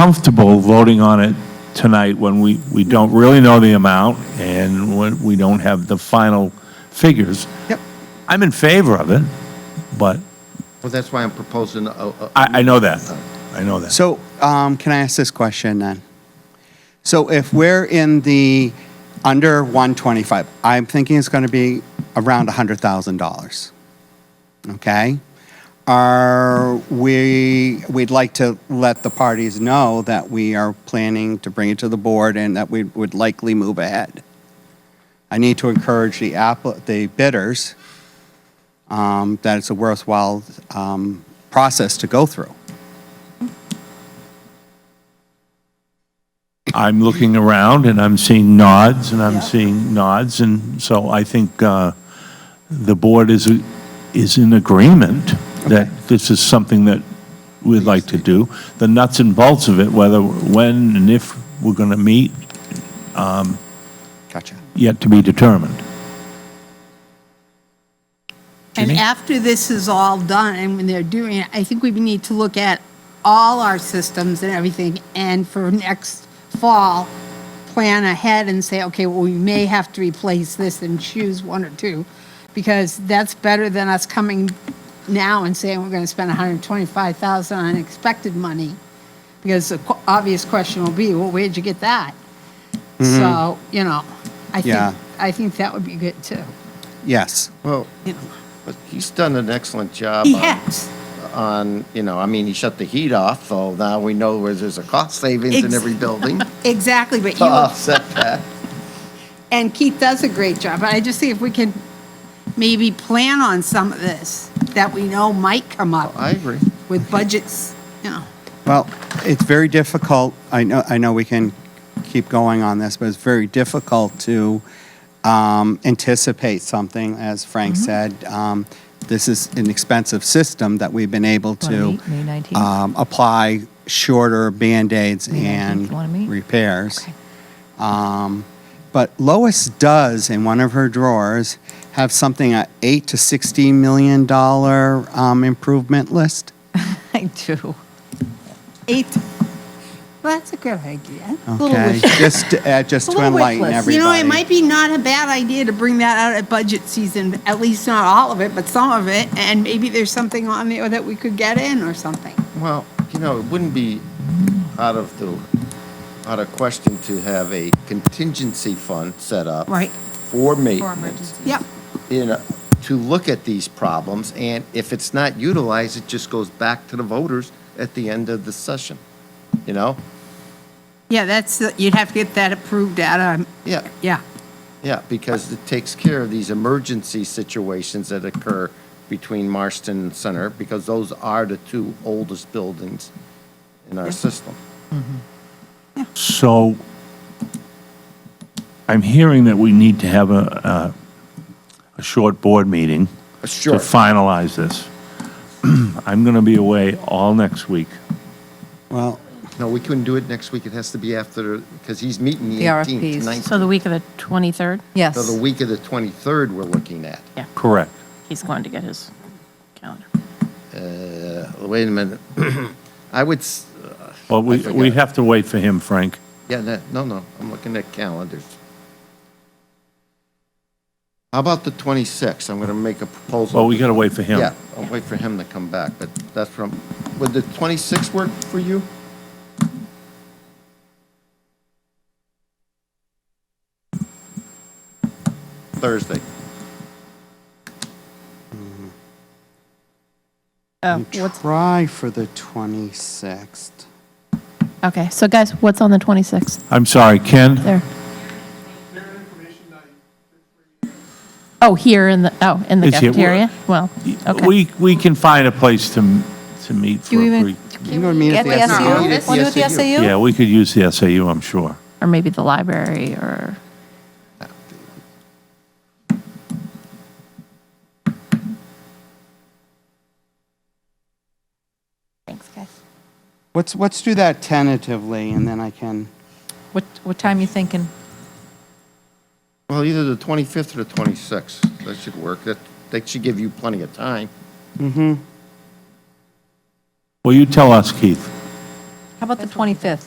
comfortable voting on it tonight when we, we don't really know the amount and when we don't have the final figures. Yep. I'm in favor of it, but Well, that's why I'm proposing a, a- I, I know that. I know that. So, um, can I ask this question then? So if we're in the under 125, I'm thinking it's going to be around $100,000. Okay? Are we, we'd like to let the parties know that we are planning to bring it to the board and that we would likely move ahead. I need to encourage the app, the bidders, um, that it's a worthwhile, um, process to go through. I'm looking around and I'm seeing nods and I'm seeing nods. And so I think uh, the board is, is in agreement that this is something that we'd like to do. The nuts and bolts of it, whether, when and if we're going to meet, Gotcha. yet to be determined. And Jimmy? after this is all done, and when they're doing it, I think we need to look at all our systems and everything, and for next fall, plan ahead and say, okay, well, we may have to replace this and choose one or two, because that's better than us coming now and saying we're gonna spend hundred and twenty-five thousand on unexpected money, because the qu- obvious question will be, well, where'd you get that? So, you know, I Yeah. think, I think that would be good, too, Yes. well, you know. but he's done an excellent job He on- has. on, you know, I mean, he shut the heat off, so now we know where there's a cost savings in Ex- every building Exactly, but to you, offset that. and Keith does a great job, but I just think if we can maybe plan on some of this that we know might come up I agree. with budgets, you know. Well, it's very difficult. I know, I know we can keep going on this, but it's very difficult to um, anticipate something, as Frank Mm-hmm. said. Um, This is an expensive system that we've been able to Wanna meet May 19th? um, apply shorter Band-Aids May 19th, and you wanna meet? repairs. Okay. Um, But Lois does, in one of her drawers, have something, a 8 to 16 million dollar um, improvement list. I do. Eight, well, that's a good idea. A little Okay, wish- just, uh, just a to little wish enlighten list. everybody. You know, it might be not a bad idea to bring that out at budget season, at least not all of it, but some of it, and maybe there's something on there that we could get in or something. Well, you know, it wouldn't be out of the, out of question to have a contingency fund set up. Right. For maintenance. Yep, you know, to look at these problems, and if it's not utilized, it just goes back to the voters at the end of the session, you know? yeah, that's, you'd have to get that approved out of, Yeah, yeah. yeah, because it takes care of these emergency situations that occur between Marston and Center, because those are the two oldest buildings in our system. So I'm hearing that we need to have a, a, a short board meeting to Sure. finalize this. I'm going to be away all next week. Well, No, we couldn't do it next week. It has to be after, because he's meeting the The 18th, RFPs. 19th. So the week of the 23rd, Yes. So the week of the 23rd, we're looking at. Correct. he's going to get his calendar. Uh, Wait a minute. I would, s- Well, we, forgot. we have to wait for him, Frank. Yeah, no, no, no, I'm looking at calendars. How about the 26th? I'm going to make a proposal. Well, we got to wait for him. Yeah, I'll wait for him to come back, but that's from, would the 26th work for you? Thursday. Oh, what's, try for the 26th. okay, so guys, what's on the 26th I'm sorry, Ken? there? Oh, here in the, oh, in the It's here. cafeteria? Well, okay. We, we can find a place to, m- to meet for Do we a even- brief. You know, meet at Get the the SAU. SAU? SAU? Want to do the E SAU. SAU? Yeah, we could use the SAU, I'm sure. Or maybe the library or, Thanks, guys. Let's, let's do that tentatively, and then I can, What, what time you thinking? Well, either the 25th or the 26th, that should work. That, that should give you plenty of time. Well, you tell us, Keith. How about the 25th?